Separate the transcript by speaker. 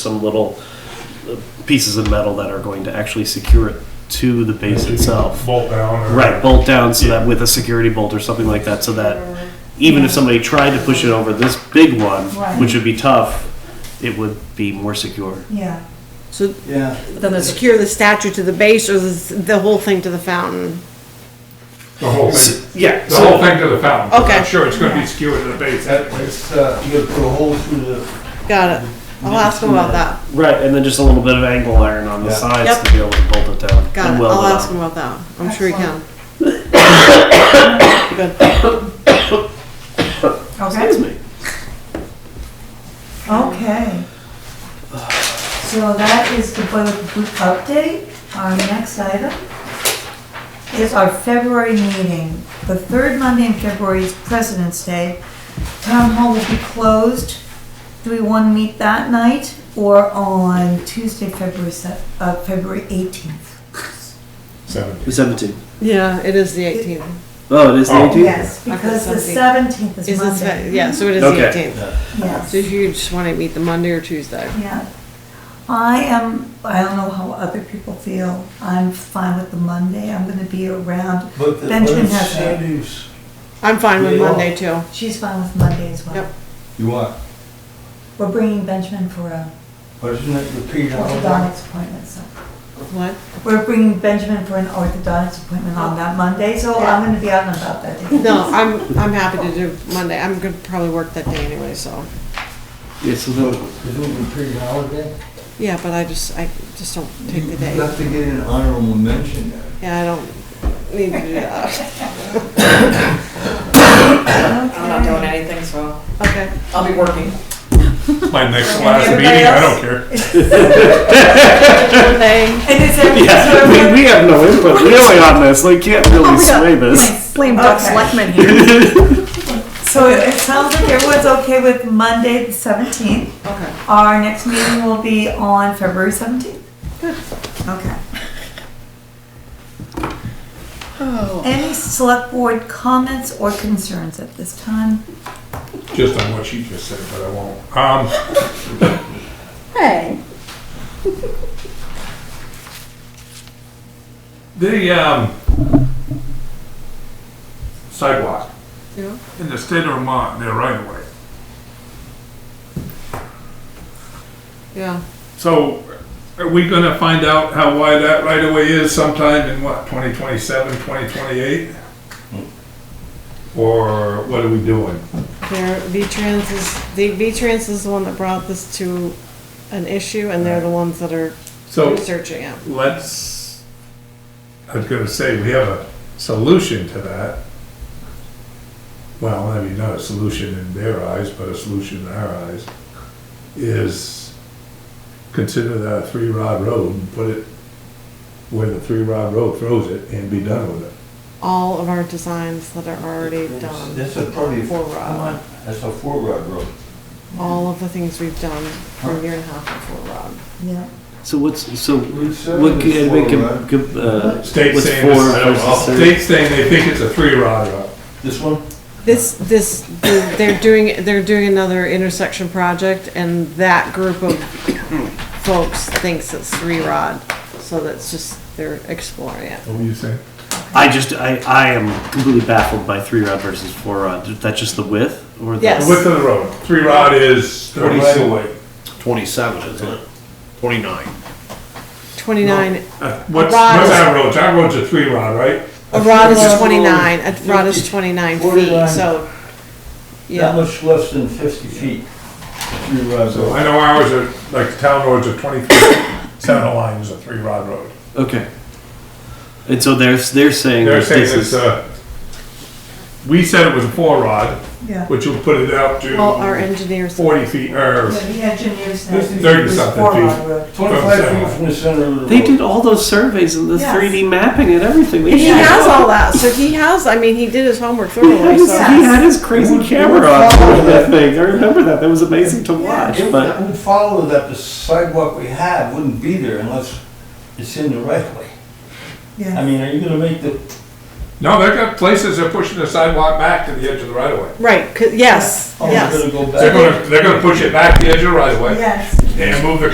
Speaker 1: some little uh, pieces of metal that are going to actually secure it to the base itself.
Speaker 2: Bolt down. or-
Speaker 1: Right, bolt down so that with a security bolt or something like that, so that even if somebody tried to push it over this big one,
Speaker 3: Right.
Speaker 1: which would be tough, it would be more secure.
Speaker 3: Yeah,
Speaker 4: So
Speaker 5: Yeah,
Speaker 4: then they secure the statue to the base or the, the whole thing to the fountain?
Speaker 2: The whole thing,
Speaker 1: Yeah,
Speaker 2: the whole thing to the fountain.
Speaker 4: Okay.
Speaker 2: I'm sure it's gonna be skewered to the base.
Speaker 5: that, that's, uh, you gotta put a hole through the,
Speaker 4: Got it. I'll ask them about that.
Speaker 1: right, and then just a little bit of angle iron on the
Speaker 5: Yeah.
Speaker 1: sides
Speaker 4: Yep.
Speaker 1: to be able to bolt it down.
Speaker 4: Got
Speaker 1: and
Speaker 4: it.
Speaker 1: weld
Speaker 4: I'll
Speaker 1: it
Speaker 4: ask
Speaker 1: on.
Speaker 4: them about that. I'm sure he can. Good.
Speaker 3: okay,
Speaker 1: Excuse me.
Speaker 3: okay. So that is the boiler group update. Our next item is our February meeting. The third Monday in February is President's Day. Town Hall will be closed. Do we want to meet that night or on Tuesday, February, se- uh, February 18th?
Speaker 2: Seventy.
Speaker 1: The 17th.
Speaker 4: Yeah, it is the 18th.
Speaker 1: Oh, it is the
Speaker 2: Oh.
Speaker 1: 18th?
Speaker 3: Yes, because the 17th is
Speaker 4: Is this,
Speaker 3: Monday.
Speaker 4: yeah, so it is
Speaker 1: Okay.
Speaker 4: the 18th.
Speaker 3: Yes.
Speaker 4: So if you just want to meet the Monday or Tuesday.
Speaker 3: Yeah. I am, I don't know how other people feel. I'm fine with the Monday. I'm gonna be around.
Speaker 5: but the, but
Speaker 3: Benjamin
Speaker 5: it's
Speaker 3: has it.
Speaker 5: Saturday's.
Speaker 4: I'm fine with
Speaker 5: Yeah.
Speaker 4: Monday too.
Speaker 3: She's fine with Monday as well.
Speaker 4: Yep.
Speaker 5: You what?
Speaker 3: We're bringing Benjamin for a
Speaker 5: But isn't it repeated all that?
Speaker 3: orthodontics appointment, so.
Speaker 4: What?
Speaker 3: We're bringing Benjamin for an orthodontics appointment on that Monday, so I'm gonna be out and about that day.
Speaker 4: No, I'm, I'm happy to do Monday. I'm gonna probably work that day anyway, so.
Speaker 1: Yeah, so
Speaker 5: So,
Speaker 1: the-
Speaker 5: isn't it repeated holiday?
Speaker 4: Yeah, but I just, I just don't take the
Speaker 5: You
Speaker 4: day.
Speaker 5: have to get an honorable mention there.
Speaker 4: Yeah, I don't need to do that.
Speaker 6: I'm not doing anything, so
Speaker 4: Okay.
Speaker 6: I'll be working.
Speaker 2: My next last
Speaker 3: Everybody
Speaker 2: meeting, I
Speaker 3: else?
Speaker 2: don't care.
Speaker 4: Thing.
Speaker 3: And is everything
Speaker 1: yeah,
Speaker 3: sort of-
Speaker 1: we, we have no input really on this. Like, can't
Speaker 3: Oh,
Speaker 1: really
Speaker 4: Oh,
Speaker 1: sway this.
Speaker 4: Blame
Speaker 3: Doug
Speaker 4: Selectman
Speaker 3: Selectman
Speaker 4: here.
Speaker 3: So it it sounds like everyone's okay with Monday, the seventeenth.
Speaker 4: Okay.
Speaker 3: Our next meeting will be on February seventeenth. Okay. Any select board comments or concerns at this time?
Speaker 2: Just on what she just said, but I won't. Um,
Speaker 3: Hey.
Speaker 2: the, um, sidewalk
Speaker 4: Yeah.
Speaker 2: in the state of Vermont, they're right away.
Speaker 4: Yeah.
Speaker 2: So are we gonna find out how wide that right away is sometime in what, 2027, 2028? Or what are we doing?
Speaker 4: They're, V-Trans is, the, V-Trans is the one that brought this to an issue and they're the ones that are
Speaker 2: So
Speaker 4: researching it.
Speaker 2: let's, I was gonna say, we have a solution to that. Well, I mean, not a solution in their eyes, but a solution in our eyes, is consider that a three-rod road and put it where the three-rod road throws it and be done with it.
Speaker 4: All of our designs that are already
Speaker 5: It's-
Speaker 4: done.
Speaker 5: That's a probably,
Speaker 4: For
Speaker 5: come
Speaker 4: um, Rob.
Speaker 5: on, that's a four rod road.
Speaker 4: All of the things we've done for a year and a half before Rob.
Speaker 3: Yeah.
Speaker 1: So what's so
Speaker 5: Route seven
Speaker 1: what
Speaker 5: is
Speaker 1: could
Speaker 5: four
Speaker 1: make
Speaker 5: rod.
Speaker 1: com, uh,
Speaker 2: State's
Speaker 1: what's
Speaker 2: saying,
Speaker 1: four
Speaker 2: this- I don't know.
Speaker 1: versus three?
Speaker 2: state's saying they think it's a three-rod road.
Speaker 5: This one?
Speaker 4: This, this, they're doing, they're doing another intersection project and that group of folks thinks it's three rod. So that's just, they're exploring it.
Speaker 2: What were you saying?
Speaker 1: I just I, I am completely baffled by three rod versus four rod. That's just the width or the
Speaker 2: The
Speaker 4: Yes.
Speaker 2: width of the road, three-rod is
Speaker 5: Forty
Speaker 2: thirty-six.
Speaker 7: 27, isn't it? 29.
Speaker 4: Twenty-nine,
Speaker 2: Uh, What's, what's
Speaker 4: Rod is-
Speaker 2: our roads? Our road's a three-rod, right?
Speaker 4: a rod
Speaker 5: That's
Speaker 4: is
Speaker 5: a
Speaker 4: twenty-nine, a rod is twenty-nine feet,
Speaker 5: 49.
Speaker 4: so.
Speaker 5: Not
Speaker 4: Yeah,
Speaker 5: much less than fifty feet. Three rod
Speaker 2: So
Speaker 5: road.
Speaker 2: I know ours are, like, the town roads are twenty-three, center line is a three-rod road.
Speaker 1: Okay. And so they're they're saying
Speaker 2: They're
Speaker 1: that
Speaker 2: saying
Speaker 1: this
Speaker 2: it's
Speaker 1: is
Speaker 2: a, we said it was a four-rod,
Speaker 3: Yeah.
Speaker 2: which would put it out
Speaker 4: well, our
Speaker 2: to
Speaker 4: engineers,
Speaker 2: forty feet, or,
Speaker 3: Yeah, the engineers. said
Speaker 2: This is
Speaker 3: it
Speaker 2: thirty
Speaker 3: was
Speaker 2: something
Speaker 3: four
Speaker 2: feet.
Speaker 3: mile road.
Speaker 5: Twenty-five
Speaker 2: From
Speaker 5: feet from the center of the road.
Speaker 1: they did all those surveys and the
Speaker 3: Yes.
Speaker 1: 3D mapping and everything. They
Speaker 4: he
Speaker 1: should-
Speaker 4: has all that, so he has, I mean, he did his homework
Speaker 1: He had,
Speaker 4: thoroughly,
Speaker 1: his,
Speaker 4: so.
Speaker 1: he had his crazy
Speaker 5: Would-
Speaker 1: camera
Speaker 5: would
Speaker 1: on
Speaker 5: follow
Speaker 1: with that
Speaker 5: that.
Speaker 1: thing. I remember that. That was amazing to watch.
Speaker 5: It
Speaker 1: But
Speaker 5: would follow that the sidewalk we have wouldn't be there unless it's in the right way. I
Speaker 3: Yeah.
Speaker 5: mean, are you gonna make the,
Speaker 2: no, they've got places they're pushing the sidewalk back to the edge of the right-of-way.
Speaker 4: Right, 'cause- yes,
Speaker 5: oh, we're
Speaker 4: yes.
Speaker 5: gonna go back?
Speaker 2: They're gonna, they're gonna push it back to the edge of the right-of-way
Speaker 3: Yes.
Speaker 2: and move the